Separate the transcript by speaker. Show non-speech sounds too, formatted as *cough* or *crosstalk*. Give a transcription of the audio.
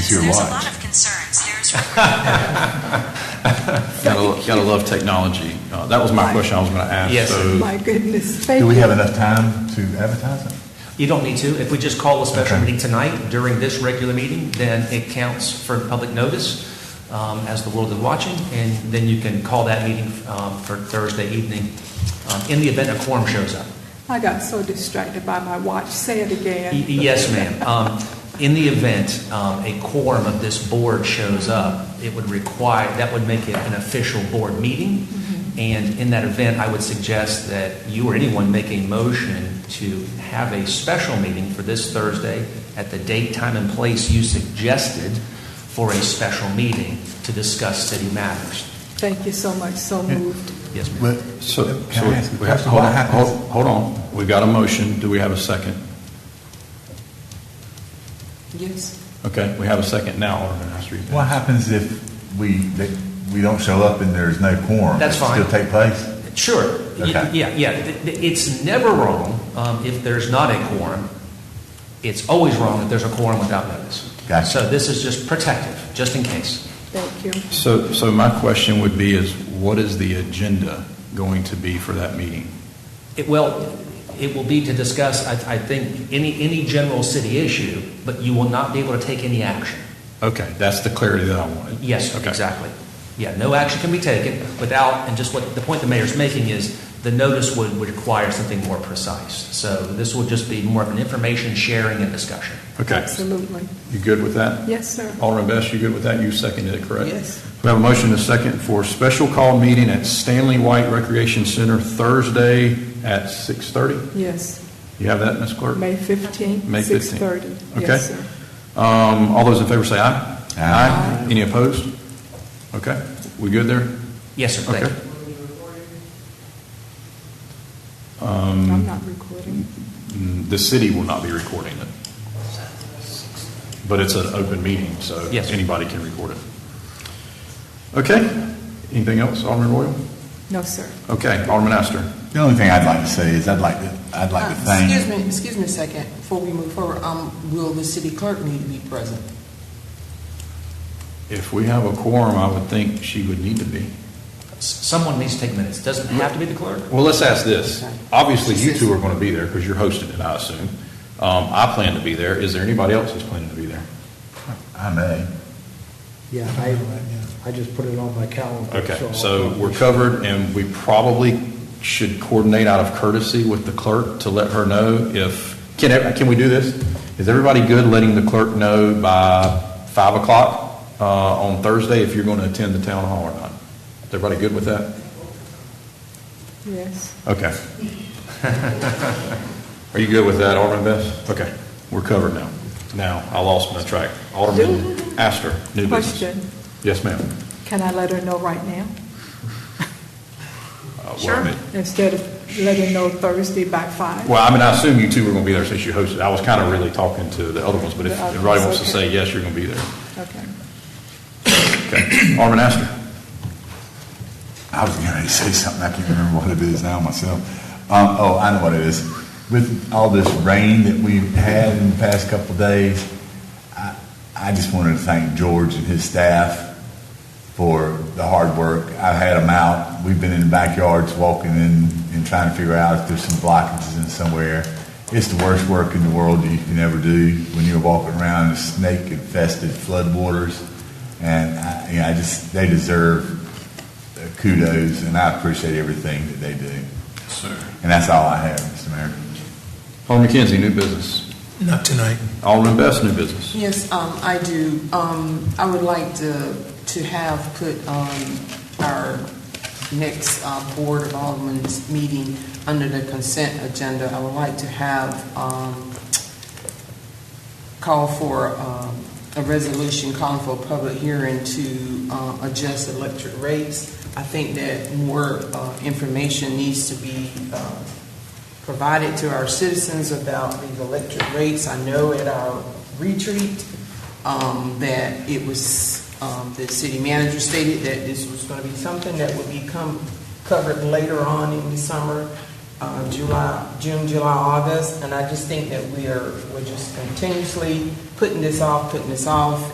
Speaker 1: to your
Speaker 2: There's a lot
Speaker 1: lives.
Speaker 2: of concerns. There's
Speaker 3: Gotta, lo- gotta love technology. Uh, That was my question I was gonna ask.
Speaker 4: Yes, sir.
Speaker 3: So
Speaker 5: My goodness, thank
Speaker 1: Do we
Speaker 5: you.
Speaker 1: have enough time to advertise it?
Speaker 4: You don't need to. If we just call a special
Speaker 1: Okay.
Speaker 4: meeting tonight during this regular meeting, then it counts for public notice um, as the world is watching, and then you can call that meeting um, for Thursday evening um, in the event a quorum shows up.
Speaker 5: I got so distracted by my watch. Say it
Speaker 4: Y-
Speaker 5: again.
Speaker 4: Yes, ma'am. Um, In the event um, a quorum of this board shows up, it would require, that would make it an official board meeting. And in that event, I would suggest that you or anyone make a motion to have a special meeting for this Thursday at the date, time, and place you suggested for a special meeting to discuss city matters.
Speaker 5: Thank you so much, so moved.
Speaker 4: Yes, ma'am.
Speaker 1: Well,
Speaker 3: So, so
Speaker 1: Can I ask a
Speaker 3: we have,
Speaker 1: question?
Speaker 3: hold
Speaker 1: What
Speaker 3: on,
Speaker 1: happens-
Speaker 3: hold- hold on. We got a motion. Do we have a second?
Speaker 5: Yes.
Speaker 3: Okay, we have a second now, Alderman Astor.
Speaker 1: What happens if we, that we don't show up and there's no quorum?
Speaker 4: That's
Speaker 1: Does it
Speaker 4: fine.
Speaker 1: Still take place?
Speaker 4: Sure. Y-
Speaker 1: Okay.
Speaker 4: Yeah, yeah. Th- th- It's never wrong um, if there's not a quorum. It's always wrong if there's a quorum without notice.
Speaker 1: Gotcha.
Speaker 4: So this is just protective, just in case.
Speaker 5: Thank you.
Speaker 3: So, so my question would be is, what is the agenda going to be for that meeting?
Speaker 4: It, well, it will be to discuss, I, I think, any, any general city issue, but you will not be able to take any action.
Speaker 3: Okay, that's the clarity that I wanted.
Speaker 4: Yes,
Speaker 3: Okay.
Speaker 4: exactly. Yeah, no action can be taken without, and just what, the point the mayor's making is, the notice would, would require something more precise. So this will just be more of an information sharing and discussion.
Speaker 3: Okay.
Speaker 5: Absolutely.
Speaker 3: You good with that?
Speaker 5: Yes, sir.
Speaker 3: Alderman Best, you good with that? You seconded it, correct?
Speaker 5: Yes.
Speaker 3: We have a motion and a second for special call meeting at Stanley White Recreation Center Thursday at 6:30.
Speaker 5: Yes.
Speaker 3: You have that, Ms. Clerk?
Speaker 5: May 15th,
Speaker 3: May 15th.
Speaker 5: 6:30.
Speaker 3: Okay.
Speaker 5: Yes, sir.
Speaker 3: Um, All those in favor say aye.
Speaker 1: Aye.
Speaker 3: Any opposed? Okay, we good there?
Speaker 4: Yes, sir, thank
Speaker 3: Okay.
Speaker 4: you.
Speaker 5: I'm not recording.
Speaker 3: Mm, The city will not be recording it. But it's an open meeting, so
Speaker 4: Yes.
Speaker 3: anybody can record it. Okay, anything else, Alderman Royal?
Speaker 5: No, sir.
Speaker 3: Okay, Alderman Astor.
Speaker 1: The only thing I'd like to say is I'd like to, I'd like to
Speaker 6: Uh,
Speaker 1: thank.
Speaker 6: Excuse me, excuse me a second, before we move forward, um, will the city clerk need to be present?
Speaker 3: If we have a quorum, I would think she would need to be.
Speaker 4: S- Someone needs to take minutes. Doesn't have to be the clerk.
Speaker 3: Well, let's ask this. Obviously, you two are going to be there because you're hosting it, I assume. Um, I plan to be there. Is there anybody else who's planning to be there?
Speaker 1: I may.
Speaker 7: Yeah, I, I just put it on my calendar.
Speaker 3: Okay,
Speaker 7: I'll
Speaker 3: so
Speaker 7: probably-
Speaker 3: we're covered, and we probably should coordinate out of courtesy with the clerk to let her know if, can, ev- can we do this? Is everybody good letting the clerk know by 5 o'clock uh, on Thursday if you're going to attend the town hall or not? Is everybody good with that?
Speaker 5: Yes.
Speaker 3: Okay. *laughs* Are you good with that, Alderman Best? Okay, we're covered now. Now, I lost my track. Alderman Astor, new business. Uh,
Speaker 5: Question.
Speaker 3: Yes, ma'am.
Speaker 5: Can I let her know right now?
Speaker 3: Uh, well, I
Speaker 4: Sure.
Speaker 3: mean-
Speaker 5: Instead of letting her know Thursday by 5?
Speaker 3: Well, I mean, I assume you two were going to be there since you hosted. I was kind of really talking to the other ones, but if
Speaker 5: The others,
Speaker 3: everybody wants to
Speaker 5: okay.
Speaker 3: say yes, you're going to be there. *clears throat*
Speaker 5: Okay.
Speaker 3: Okay. Alderman Astor.
Speaker 1: I was going to *laughs* say something, I can't remember what it is now myself. Um, oh, I know what it is. With all this rain that we've had in the past couple of days, I, I just wanted to thank George and his staff for the hard work. I've had them out. We've been in the backyards walking in and trying to figure out if there's some blockages in somewhere. It's the worst work in the world you can ever do when you're walking around in snake infested floodwaters. And I, you know, I just, they deserve kudos, and I appreciate everything that they do.
Speaker 3: Sir.
Speaker 1: And that's all I have, Mr. Mayor.
Speaker 3: Alderman Kinsey, new business.
Speaker 8: Not tonight.
Speaker 3: Alderman Best, new business.
Speaker 6: Yes, um, I do, um, I would like to, to have put, um, our next, uh, Board of Aldermen's meeting under the consent agenda. I would like to have, um, call for, um, a resolution calling for a public hearing to, uh, adjust electric rates. I think that more, uh, information needs to be, uh, provided to our citizens about the electric rates. I know at our retreat um, that it was, um, the city manager stated that this was going to be something that would become covered later on in the summer, uh, July, June, July, August. And I just think that we are, we're just continuously putting this off, putting this off,